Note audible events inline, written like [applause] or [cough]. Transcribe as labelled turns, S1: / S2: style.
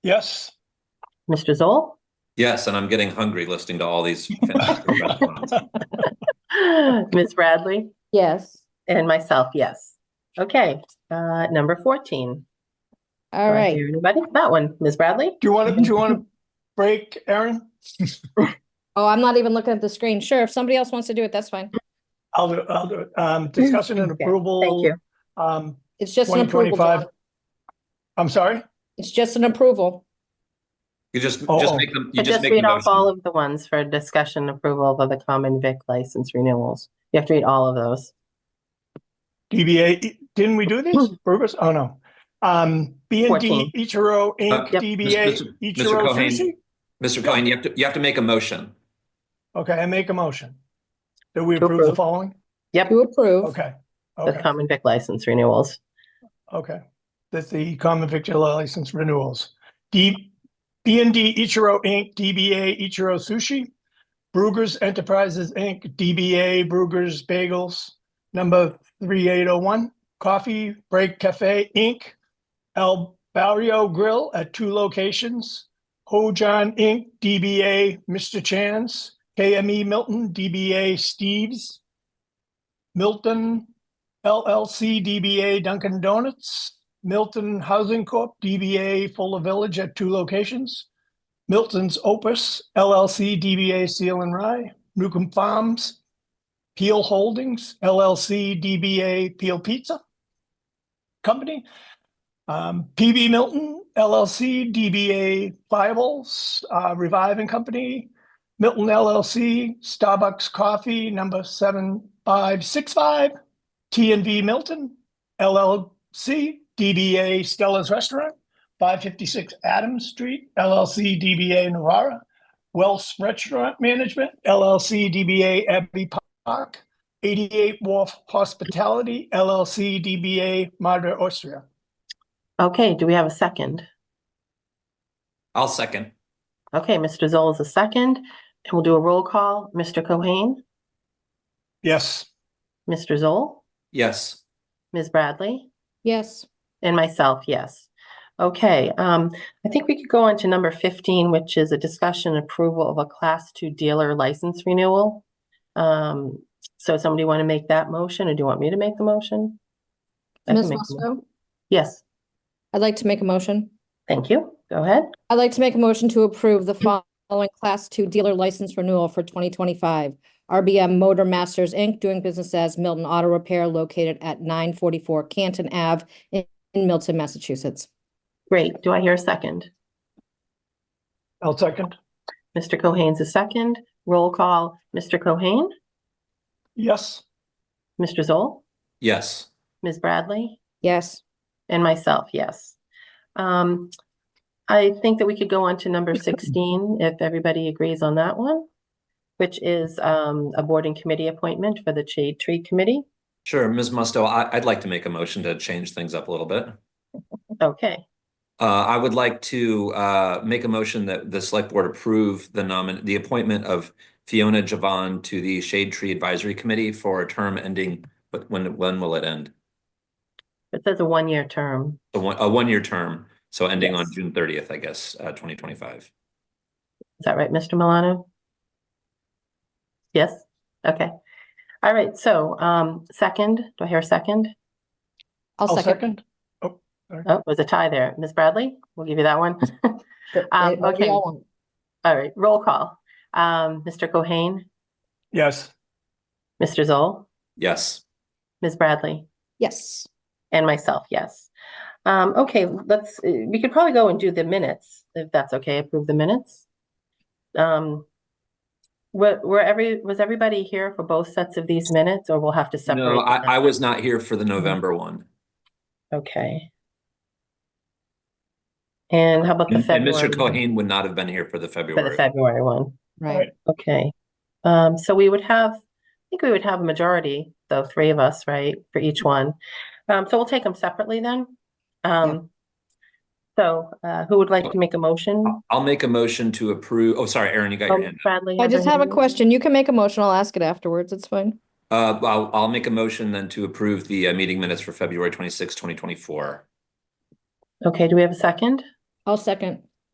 S1: Yes.
S2: Mr.
S3: [laughs]
S2: Zoll,
S4: Yes, and I'm getting hungry listening to all these fantastic restaurants.
S2: Ms. Bradley,
S3: Yes.
S2: and myself, yes. Okay, uh, number 14.
S3: All
S2: Do I
S3: right.
S2: hear Anybody? That one, Ms. Bradley?
S1: Do you want to, do you want [laughs] to break, Aaron?
S3: Oh, I'm not even looking at the screen. Sure, if somebody else wants to do it, that's fine.
S1: I'll do, I'll do it. Um, discussion and
S2: Okay,
S1: approval.
S2: Thank you.
S1: Um,
S3: It's just an approval,
S1: 2025.
S3: John.
S1: I'm sorry?
S3: It's just an approval.
S4: You just,
S1: Oh.
S4: just make them, you
S2: I
S4: just
S2: just
S4: make the
S2: read off all
S4: motion.
S2: of the ones for discussion approval of the common vic license renewals. You have to read all of those.
S1: DBA, didn't we do these? Burgess? Oh, no. Um, B and D
S2: 14.
S1: Ichiro Inc.,
S4: Uh,
S2: Yep.
S1: DBA
S4: Mr.
S1: Ichiro
S4: Cohen.
S1: Sushi?
S4: Mr. Cohen, you have to, you have to make a motion.
S1: Okay, I make a motion. Do we
S2: To
S1: approve the
S2: approve.
S1: following?
S2: Yep,
S3: To approve.
S1: Okay,
S2: the
S1: okay,
S2: common vic license renewals.
S1: okay. That's the common victular license renewals. D, B and D Ichiro Inc., DBA Ichiro Sushi, Brugger's Enterprises Inc., DBA Brugger's Bagels, number 3801, Coffee Break Cafe Inc., El Barrio Grill at two locations, Hojan Inc., DBA Mr. Chan's, KME Milton, DBA Steve's, Milton LLC, DBA Dunkin' Donuts, Milton Housing Corp., DBA Fuller Village at two locations, Milton's Opus LLC, DBA Seal and Rye, Newcomb Farms, Peel Holdings LLC, DBA Peel Pizza Company, um, PB Milton LLC, DBA Bibles, uh, Reviving Company, Milton LLC, Starbucks Coffee, number seven five six five, T and V Milton LLC, DBA Stella's Restaurant, five fifty-six Adams Street, LLC, DBA Navara, Wells Restaurant Management, LLC, DBA Abbey Park, eighty-eight Wharf Hospitality, LLC, DBA Madre Austria.
S2: Okay, do we have a second?
S4: I'll second.
S2: Okay, Mr. Zoll is a second, and we'll do a roll call. Mr. Cohen,
S1: Yes.
S2: Mr. Zoll,
S4: Yes.
S2: Ms. Bradley?
S3: Yes.
S2: And myself, yes. Okay, um, I think we could go on to number fifteen, which is a discussion and approval of a class two dealer license renewal. Um, so somebody want to make that motion, or do you want me to make the motion? I can
S3: Ms.
S2: make the mo-
S3: Musto,
S2: Yes,
S3: I'd like to make a motion.
S2: thank you. Go ahead.
S3: I'd like to make a motion to approve the
S2: Hmm.
S3: following Class Two dealer license renewal for 2025. RBM Motor Masters, Inc., doing business as Milton Auto Repair located at 944 Canton Ave in in Milton, Massachusetts.
S2: Great. Do I hear a second?
S1: I'll second.
S2: Mr. Cohen's a second. Roll call. Mr. Cohen,
S1: Yes.
S2: Mr. Zoll,
S4: Yes.
S2: Ms. Bradley?
S3: Yes.
S2: And myself, yes. Um, I think that we could go on to number sixteen, if everybody agrees on that one, which is um a board and committee appointment for the shade tree committee.
S4: Sure. Ms. Musto, I, I'd like to make a motion to change things up a little bit.
S2: Okay,
S4: Uh, I would like to, uh, make a motion that the select board approve the nomin, the appointment of Fiona Javan to the Shade Tree Advisory Committee for a term ending, but when, when will it end?
S2: it says a one-year term.
S4: A one, a one-year term, so ending on
S2: Yes.
S4: June thirtieth, I guess, uh, twenty twenty-five.
S2: Is that right, Mr. Milano? Yes, okay. All right, so um second, do I hear a second?
S3: I'll
S1: I'll
S3: second.
S1: second.
S2: Oh, it was a tie there. Ms. Bradley, we'll give you that [laughs] one.
S3: But-
S2: Um,
S3: but we
S2: okay.
S3: all want-
S2: All right, roll call. Um, Mr. Cohen,
S1: Yes.
S2: Mr. Zoll,
S4: Yes.
S2: Ms. Bradley?
S3: Yes.
S2: And myself, yes. Um, okay, let's, uh, we could probably go and do the minutes, if that's okay, approve the minutes. Um, were, were every, was everybody here for both sets of these minutes, or we'll have to separate? Mm-hmm.
S4: No,
S2: them?
S4: I, I was not here for the November one.
S2: Okay. And how about the
S4: And and
S2: February?
S4: Mr. Cohen would not have been here for the
S2: For the
S4: February.
S2: February one,
S3: Right.
S2: okay. Um, so we would have, I think we would have a majority, though, three of us, right, for each one. Um, so we'll take them separately then. Um, so, uh, who would like to make a motion?
S4: I'll- I'll make a motion to approve, oh, sorry, Aaron, you got
S2: Oh,
S4: your hand. up.
S2: Bradley.
S3: I
S2: has
S3: just have a
S2: anything?
S3: question. You can make a motion. I'll ask it afterwards. It's fine.
S4: Uh, I'll, I'll make a motion then to approve the uh, meeting minutes for February twenty twenty four.
S2: Okay, do we have a second?
S3: I'll second.